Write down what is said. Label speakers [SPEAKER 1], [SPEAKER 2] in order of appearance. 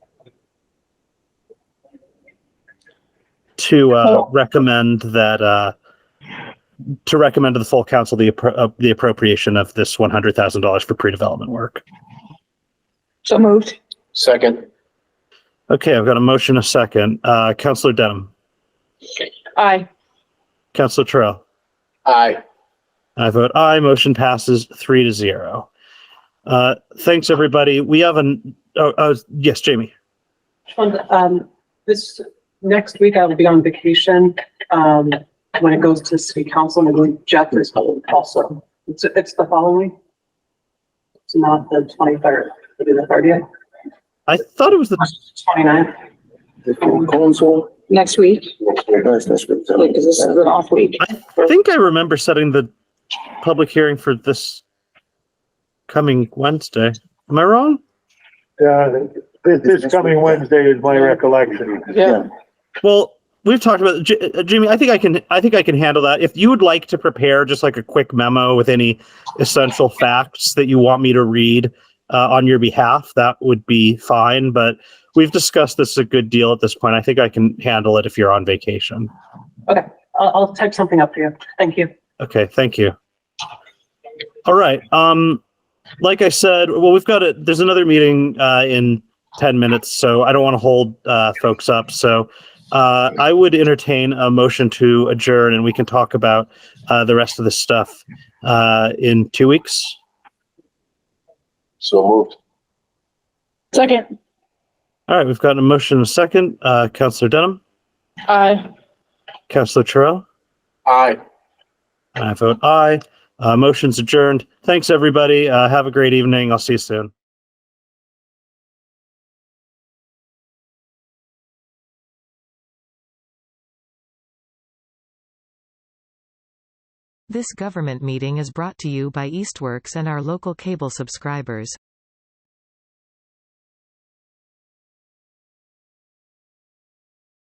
[SPEAKER 1] to uh, recommend that uh, to recommend to the full council the appro- uh, the appropriation of this one hundred thousand dollars for pre-development work.
[SPEAKER 2] So moved.
[SPEAKER 3] Second.
[SPEAKER 1] Okay, I've got a motion, a second. Uh, Councillor Denham,
[SPEAKER 2] Aye.
[SPEAKER 1] Councillor Terrell.
[SPEAKER 3] Aye.
[SPEAKER 1] I vote aye. Motion passes three to zero. Uh, thanks, everybody. We have an oh, oh yes, Jamie.
[SPEAKER 4] And, um, this, next week I will be on vacation, um, when it goes to city council, I believe Jeff is also. It's, it's the following. It's not the twenty-third, it'll be the thirtieth,
[SPEAKER 1] I thought it was the
[SPEAKER 4] twenty-ninth.
[SPEAKER 3] Council.
[SPEAKER 2] Next week, because this is an
[SPEAKER 3] Second.
[SPEAKER 2] off week.
[SPEAKER 1] I think I remember setting the public hearing for this coming Wednesday. Am I wrong?
[SPEAKER 5] Yeah, I think this, this coming Wednesday is my recollection.
[SPEAKER 2] Yeah.
[SPEAKER 1] Well, we've talked about J- uh, Jimmy. I think I can. I think I can handle that. If you would like to prepare just like a quick memo with any essential facts that you want me to read uh, on your behalf, that would be fine. But we've discussed this a good deal at this point. I think I can handle it if you're on vacation.
[SPEAKER 4] I'll, I'll type something up for you. Thank you.
[SPEAKER 1] Okay, thank you. All right. Um, like I said, well, we've got a There's another meeting uh, in ten minutes, so I don't want to hold uh, folks up. So uh, I would entertain a motion to adjourn, and we can talk about uh, the rest of this stuff uh, in two weeks.
[SPEAKER 3] So moved.
[SPEAKER 2] Second,
[SPEAKER 1] All right, we've got a motion and a second. Uh, Councillor Denham,
[SPEAKER 2] aye.
[SPEAKER 1] Councillor Terrell,
[SPEAKER 3] Aye.
[SPEAKER 1] and I vote aye. Uh, motion's adjourned. Thanks, everybody. Uh, have a great evening. I'll see you soon.
[SPEAKER 6] This government meeting is brought to you by Eastworks and our local cable subscribers.